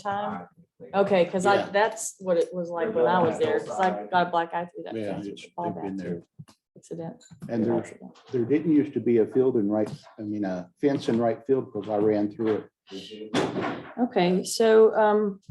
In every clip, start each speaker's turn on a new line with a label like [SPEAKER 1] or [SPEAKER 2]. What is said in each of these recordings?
[SPEAKER 1] Anytime? Okay, cause I,
[SPEAKER 2] Yeah.
[SPEAKER 1] that's what it was like when I was there, cause I got a black eye through that
[SPEAKER 2] Yeah,
[SPEAKER 1] fence,
[SPEAKER 2] it's-
[SPEAKER 1] which all
[SPEAKER 2] they've been
[SPEAKER 1] that
[SPEAKER 2] there.
[SPEAKER 1] accident.
[SPEAKER 2] And there,
[SPEAKER 1] accident.
[SPEAKER 2] there didn't used to be a field in right, I mean, a fence in right field because I ran through it.
[SPEAKER 1] Okay, so, um,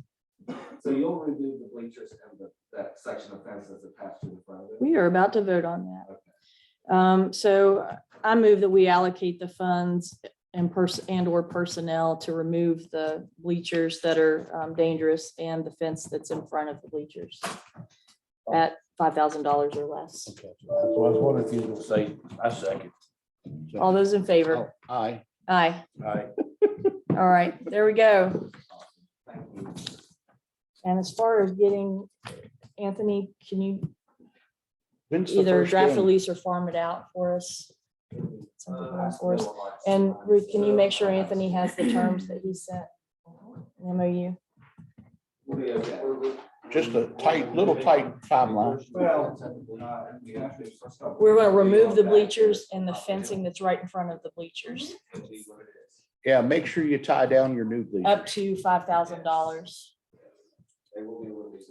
[SPEAKER 3] So you'll remove the bleachers and the, that section of fence that's attached to the front of it?
[SPEAKER 1] we are about to vote on that. Um, so I move that we allocate the funds and person and or personnel to remove the bleachers that are um, dangerous and the fence that's in front of the bleachers at five thousand dollars or less.
[SPEAKER 2] Okay.
[SPEAKER 4] So I was wondering if you would say, I second.
[SPEAKER 1] All those in favor?
[SPEAKER 2] Oh, Aye.
[SPEAKER 1] Aye.
[SPEAKER 4] Aye.
[SPEAKER 1] All right, there we go.
[SPEAKER 3] Thank you.
[SPEAKER 1] And as far as getting, Anthony, can you
[SPEAKER 2] When's the
[SPEAKER 1] either
[SPEAKER 2] first
[SPEAKER 1] draft a
[SPEAKER 2] game?
[SPEAKER 1] lease or farm it out for us? Something
[SPEAKER 3] Uh,
[SPEAKER 1] for
[SPEAKER 3] I
[SPEAKER 1] us, for us.
[SPEAKER 3] still like
[SPEAKER 1] And Ruth, can you make
[SPEAKER 3] sometimes,
[SPEAKER 1] sure
[SPEAKER 3] uh,
[SPEAKER 1] Anthony has the terms that he sent? An MOU?
[SPEAKER 3] we'll be okay.
[SPEAKER 2] Just a tight, little tight timeline.
[SPEAKER 3] Well, uh, we actually-
[SPEAKER 1] We're gonna remove the bleachers and the fencing that's right in front of the bleachers,
[SPEAKER 3] It'll be what it is.
[SPEAKER 2] Yeah, make sure you tie down your new leaf.
[SPEAKER 1] up to five thousand dollars.
[SPEAKER 3] They will be released.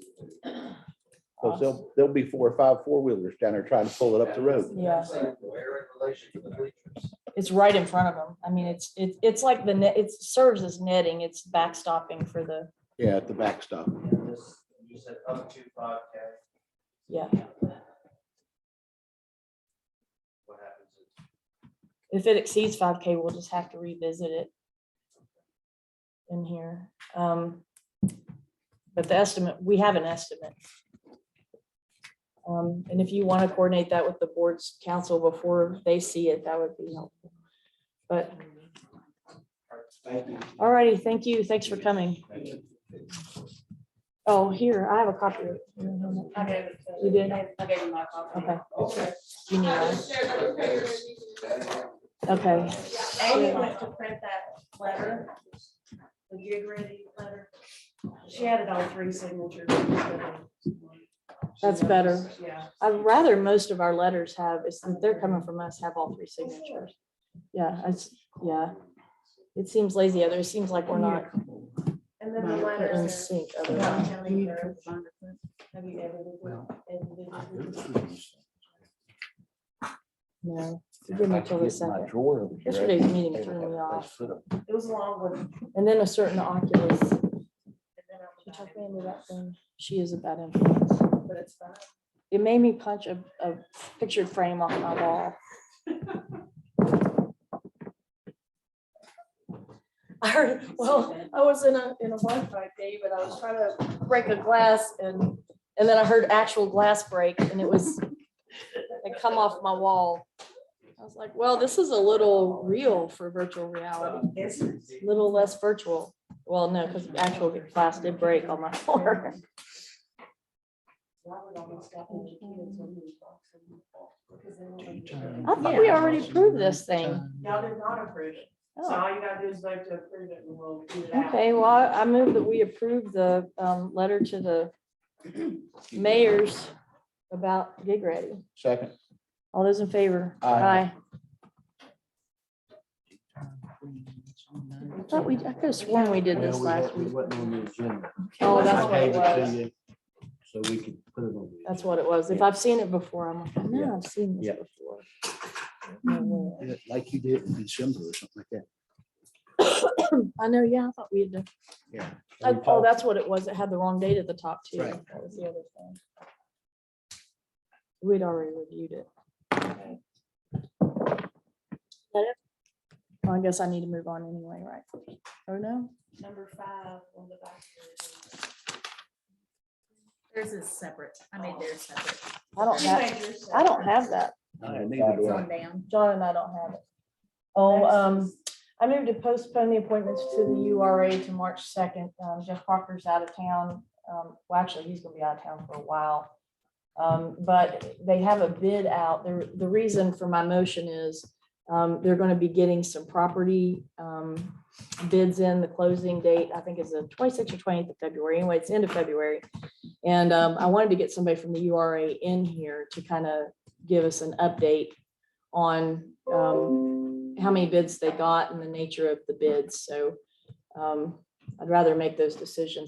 [SPEAKER 2] Because there'll, there'll be four or five four-wheelers down there trying to pull it up the road.
[SPEAKER 1] Yeah.
[SPEAKER 3] Where in relation to the bleachers?
[SPEAKER 1] It's right in front of them. I mean, it's, it's, it's like the net, it serves as netting, it's backstopping for the,
[SPEAKER 2] Yeah, at the backstop.
[SPEAKER 3] And this, you said up to five K,
[SPEAKER 1] yeah.
[SPEAKER 3] what happens? if-
[SPEAKER 1] If it exceeds five K, we'll just have to revisit it in here. Um, But the estimate, we have an estimate. Um, And if you want to coordinate that with the board's council before they see it, that would be helpful. But,
[SPEAKER 3] Thank you.
[SPEAKER 1] all righty, thank you. Thanks for coming.
[SPEAKER 3] Thank you.
[SPEAKER 1] Oh, here, I have a copy. of it.
[SPEAKER 5] I gave it to-
[SPEAKER 1] You did?
[SPEAKER 5] I gave you my copy.
[SPEAKER 1] Okay,
[SPEAKER 3] Okay.
[SPEAKER 1] you need
[SPEAKER 6] I
[SPEAKER 1] one.
[SPEAKER 6] just shared that with players.
[SPEAKER 1] Okay,
[SPEAKER 5] Amy went to print that letter, the gig ready letter. She had it on three signatures. instead of one.
[SPEAKER 1] That's better.
[SPEAKER 5] Yeah.
[SPEAKER 1] I'd rather most of our letters have, it's, they're coming from us, have all three signatures. Yeah, it's, yeah. It seems lazy, other, it seems like we're not
[SPEAKER 5] And then the
[SPEAKER 1] not in
[SPEAKER 5] letters.
[SPEAKER 1] sync otherwise.
[SPEAKER 5] Well,
[SPEAKER 1] No, give me till the second.
[SPEAKER 2] Drawer over here.
[SPEAKER 1] Yesterday's meeting threw me off.
[SPEAKER 5] It was a long one. and
[SPEAKER 1] And then a certain Oculus,
[SPEAKER 5] then I'm
[SPEAKER 1] she
[SPEAKER 5] back.
[SPEAKER 1] took me into that thing. She is a bad influence.
[SPEAKER 5] But it's fine.
[SPEAKER 1] It made me punch a, a pictured frame off my wall. I heard, well, I was in a, in a Wi-Fi day, but I was trying to break a glass and, and then I heard actual glass break and it was, it come off my wall. I was like, well, this is a little real for virtual reality,
[SPEAKER 5] It's-
[SPEAKER 1] little less virtual. Well, no, because actual glass did break on my floor.
[SPEAKER 5] Robert almost got me the kids when he was boxing. Because they wanted-
[SPEAKER 1] I thought we already proved this thing.
[SPEAKER 5] Y'all did not approve it. So
[SPEAKER 1] Oh,
[SPEAKER 5] all you gotta do is vote to approve it and we'll do that.
[SPEAKER 1] Okay, well, I I move that we approve the um, letter to the mayors about gig ready.
[SPEAKER 2] Second.
[SPEAKER 1] All those in favor?
[SPEAKER 2] Aye.
[SPEAKER 1] I thought we, I could have sworn we did this last week.
[SPEAKER 4] wasn't on the agenda.
[SPEAKER 1] Oh, that's what it
[SPEAKER 4] I gave
[SPEAKER 1] was.
[SPEAKER 4] to you So we could put it on. the
[SPEAKER 1] That's what it was. If I've seen it before, I'm like, I know I've seen this
[SPEAKER 2] Yeah.
[SPEAKER 1] before. No way.
[SPEAKER 2] Yeah, Like you did in December or something like that.
[SPEAKER 1] I know, yeah, I thought we had, done-
[SPEAKER 2] Yeah.
[SPEAKER 1] oh, oh, that's what it was. It had the wrong date at the top too.
[SPEAKER 2] Right.
[SPEAKER 1] That was the other thing. We'd already reviewed it. Okay. That it? Well, I guess I need to move on anyway, right? Oh, no?
[SPEAKER 5] Number five on the back. here.
[SPEAKER 6] Theirs is separate. I made theirs separate.
[SPEAKER 1] I don't
[SPEAKER 5] You
[SPEAKER 1] have,
[SPEAKER 5] made yours
[SPEAKER 1] I don't have that.
[SPEAKER 2] No, Neither
[SPEAKER 6] It's
[SPEAKER 2] do I.
[SPEAKER 6] on down.
[SPEAKER 1] John and I don't have it. Oh,
[SPEAKER 5] Next.
[SPEAKER 1] um, I moved to postpone the appointments to the URA to March second. Um, Jeff Parker's out of town. Um, well, actually, he's gonna be out of town for a while. Um, but they have a bid out. The, the reason for my motion is, um, they're gonna be getting some property, um, bids in. The closing date, I think is the twenty-sixth or twentieth of February. Anyway, it's end of February. And, um, I wanted to get somebody from the URA in here to kind of give us an update on um, how many bids they got and the nature of the bids. So um, I'd rather make those decisions